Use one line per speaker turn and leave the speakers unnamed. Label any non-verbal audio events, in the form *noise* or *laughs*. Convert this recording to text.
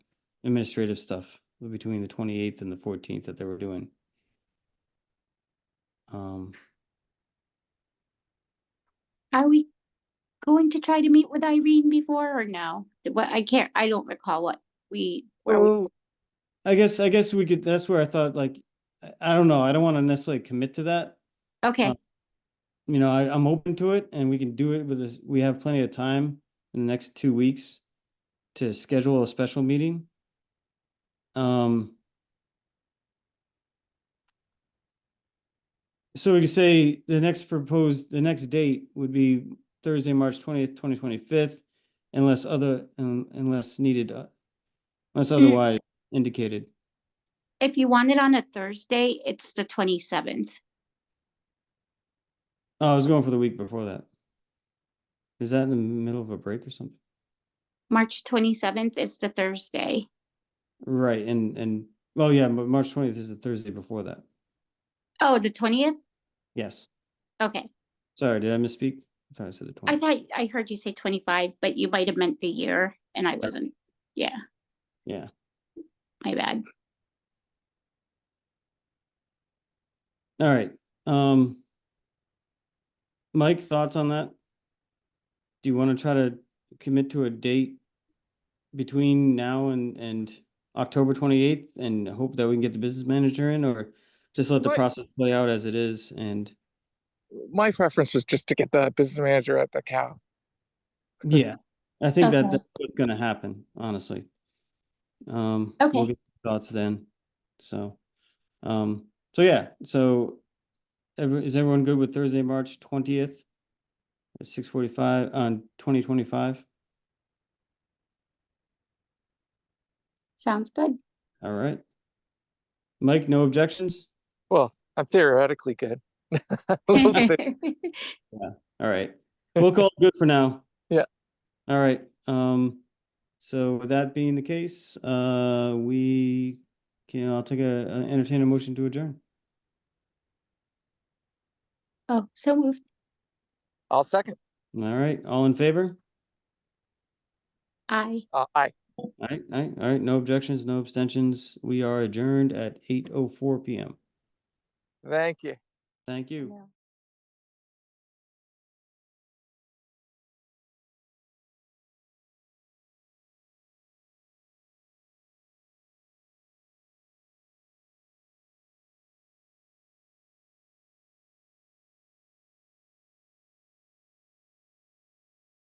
administrative stuff between the twenty-eighth and the fourteenth that they were doing. Um,
Are we going to try to meet with Irene before or no? What, I can't, I don't recall what we, where we,
well, I guess, I guess we could, that's where I thought like, I, I don't know, I don't want to necessarily commit to that.
okay,
You know, I, I'm open to it and we can do it with this, we have plenty of time in the next two weeks to schedule a special meeting. Um. So we could say the next proposed, the next date would be Thursday, March twentieth, twenty twenty-fifth, unless other, un- unless needed, uh, unless otherwise indicated.
if you want it on a Thursday, it's the twenty-seventh.
Oh, I was going for the week before that. Is that in the middle of a break or something?
March twenty-seventh is the Thursday.
Right, and, and, well, yeah, but March twentieth is the Thursday before that.
Oh, the twentieth?
Yes,
Okay,
sorry, did I misspeak? I thought I said the
I
twentieth.
thought, I heard you say twenty-five, but you might have meant the year and I wasn't, yeah,
Yeah,
my bad.
all right, um. Mike, thoughts on that? Do you want to try to commit to a date between now and, and October twenty-eighth and hope that we can get the business manager in or just let the
What-
process play out as it is and,
my preference was just to get the business manager at the cow.
yeah, I think that
Okay.
that's what's gonna happen, honestly. Um,
Okay.
we'll get your thoughts then. So, um, so yeah, so every, is everyone good with Thursday, March twentieth? At six forty-five on twenty twenty-five?
Sounds good.
All right. Mike, no objections?
*laughs* Well, I'm theoretically good. *laughs*
*laughs*
We'll see.
Okay,
All right. We'll call it good for now.
Yeah.
All right. Um, so with that being the case, uh, we can, I'll take a, a- entertain a motion to adjourn.
Oh, so moved.
I'll second.
All right, all in favor?
Aye.
Uh, aye.
All right, all right, all right, no objections, no abstentions. We are adjourned at eight oh four PM.
Thank you.
Thank you.
Yeah.